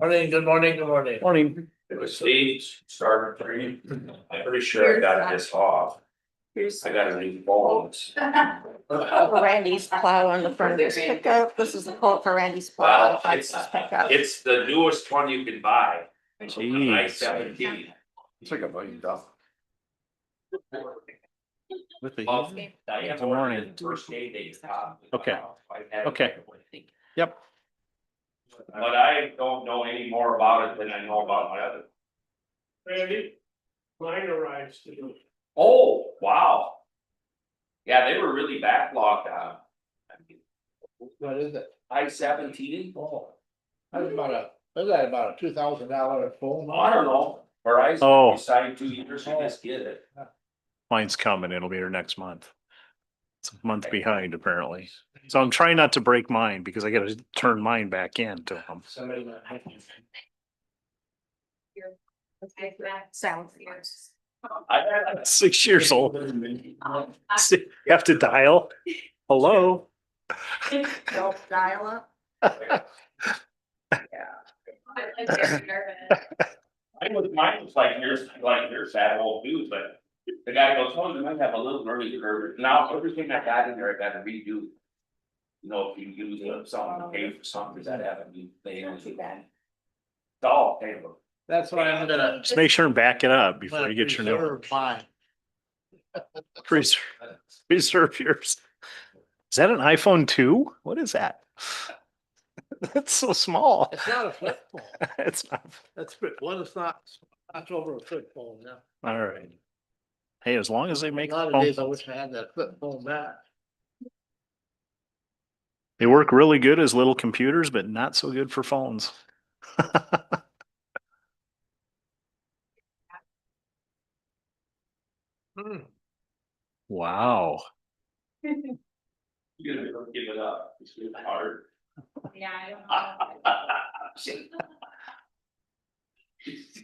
Morning, good morning, good morning. Morning. It was Steve started three. I'm pretty sure I got this off. Here's. I gotta leave balls. Randy's plow on the front of his pickup. This is the quote for Randy's plow. on Well, the front of it's, his pickup. it's the newest one you can buy. I Jeez. seventeen. It's like a buggy dog. With the Well, heat? Diane Good morning. ordered it first day they got it. Okay. I had it. Okay. Yep, But I don't know any more about it than I know about my other. Randy, mine arrives today. Oh, wow. Yeah, they were really backlogged on. What is it? I seventeen, Oh. That's about a, that's about a two thousand dollar phone. I don't know, or I Oh. decided two years ago, let's get it. mine's coming. It'll be here next month. It's a month behind apparently. So I'm trying not to break mine because I gotta turn mine back in to them. Somebody might have you. Sounds yours. I had It's Six years old. So You have to dial. Hello? Don't dial up. Mine was, mine was like yours, like yours, that old dude, but the guy goes, oh, you might have a little learning curve, now everything I got in there, I gotta redo. You know, if you use it, something, pay for something, that happened, you pay. Not too bad. Dog, pay them. That's why I'm gonna. Just make sure and back it up before gonna you get your new one. preserve mine. Preserve, preserve yours. Is that an iPhone two? What is that? That's so small. It's not a flip phone. It's not, That's, well, it's not, not over a flip phone now. all right. Hey, as long as they A make, lot the of phone days I calls- wish I had that flip phone back. they work really good as little computers, but not so good for phones. Hmm. Wow. You're gonna give it up, it's gonna be hard. Yeah, I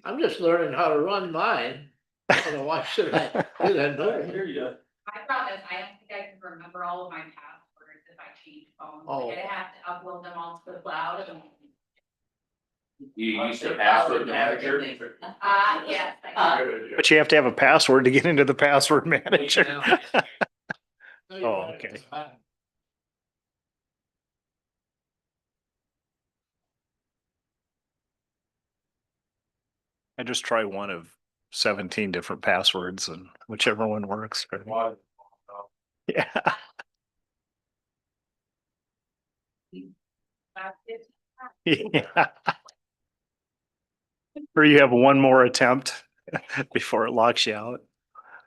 I'm just learning how to run mine. I don't know why should I do that? I No. hear you. I promise, I don't think I can remember all of my passwords if I change phones, Oh. Like, I'd have to upload them all to the cloud and. You used to password manager. Uh, yes, I But you have to have a password to get into the password manager. now- No, you're Oh, right. okay. I- I just try one of seventeen different passwords and whichever one works. right? Yeah. can. Yeah. Or you have one more attempt before it locks you out.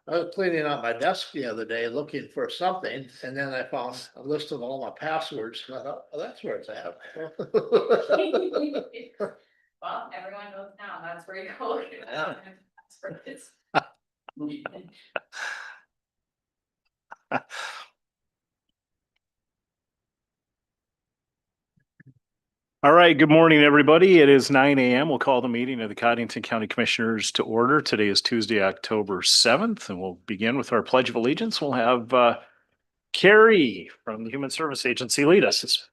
I was cleaning out my desk the other day looking for something, and then I found a list of all my passwords. and I thought, oh, that's where it's at. Well, everyone knows now, that's where you go. Yeah. Passwords. All right, good morning, everybody. It is nine AM. We'll call the meeting of the Cottington County Commissioners to order. Today is Tuesday, October seventh, and we'll begin with our Pledge of Allegiance. We'll have uh, Carrie from the Human Service Agency lead us.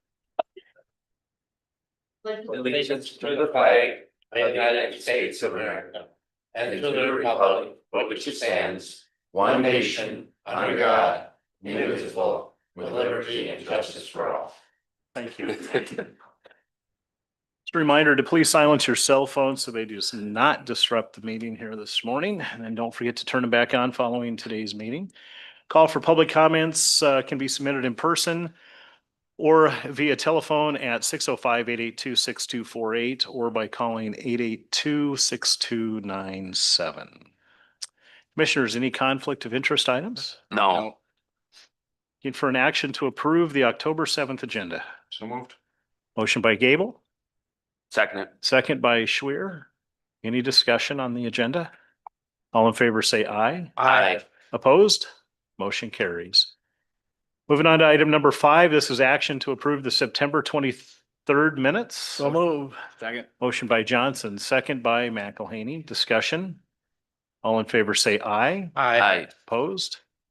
Allegiance to the flag of the United States of America and to the republic for which it stands, one nation, under God, indivisible, with liberty and justice for all. Thank you. Just a reminder to please silence your cell phones so they do not disrupt the meeting here this morning. And then don't forget to turn them back on following today's meeting. Call for public comments uh, can be submitted in person or via telephone at 605-882-6248 or by calling 882-6297. Commissioners, any conflict of interest items? No. Looking for an action to approve the October seventh agenda. So moved. Motion by Gable, Second it. second by Schwer. Any discussion on the agenda? All in favor, say aye. Aye. Opposed? Motion carries. Moving on to item number five, this is action to approve the September twenty-third minutes. So move. Second. Motion by Johnson, second by McElhaney. Discussion? All in favor, say aye. Aye. Opposed?